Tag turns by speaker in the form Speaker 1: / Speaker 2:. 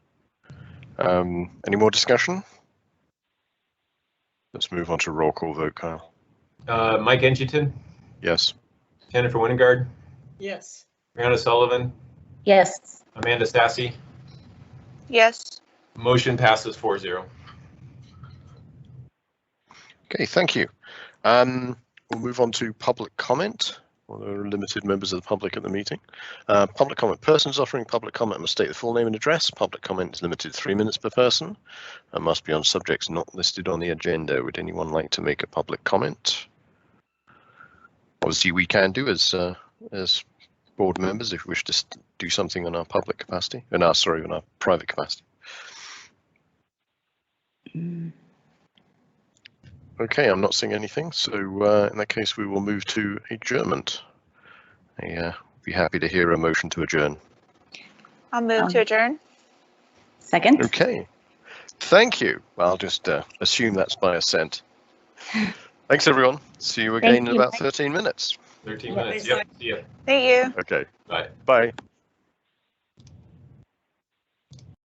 Speaker 1: Um, any more discussion? Let's move on to roll call vote, Kyle.
Speaker 2: Uh, Mike Edgerton,
Speaker 1: Yes.
Speaker 2: Jennifer Wingard,
Speaker 3: Yes.
Speaker 2: Brianna Sullivan,
Speaker 4: Yes.
Speaker 2: Amanda Sassy.
Speaker 5: Yes.
Speaker 2: Motion passes 4-0.
Speaker 1: Okay, thank you. Um, we'll move on to public comment. Well, there are limited members of the public at the meeting. Uh, public comment. Persons offering public comment must state the full name and address. Public comment is limited to three minutes per person and must be on subjects not listed on the agenda. Would anyone like to make a public comment? Obviously, we can do as uh, as board members if we wish to s- do something in our public capacity, in our sorry, in our private capacity. Okay, I'm not seeing anything. So uh, in that case, we will move to adjournment. I uh, be happy to hear a motion to adjourn.
Speaker 5: I'll move to
Speaker 4: Um,
Speaker 5: adjourn.
Speaker 4: Second?
Speaker 1: Okay. Thank you. Well, I'll just uh, assume that's by assent. Thanks, everyone. See you again
Speaker 4: Thank
Speaker 1: in
Speaker 4: you,
Speaker 1: about
Speaker 4: Mike.
Speaker 1: 13 minutes.
Speaker 2: 13
Speaker 4: Yeah.
Speaker 2: minutes. Yep. See ya.
Speaker 5: Thank you.
Speaker 1: Okay.
Speaker 2: Bye.
Speaker 1: Bye.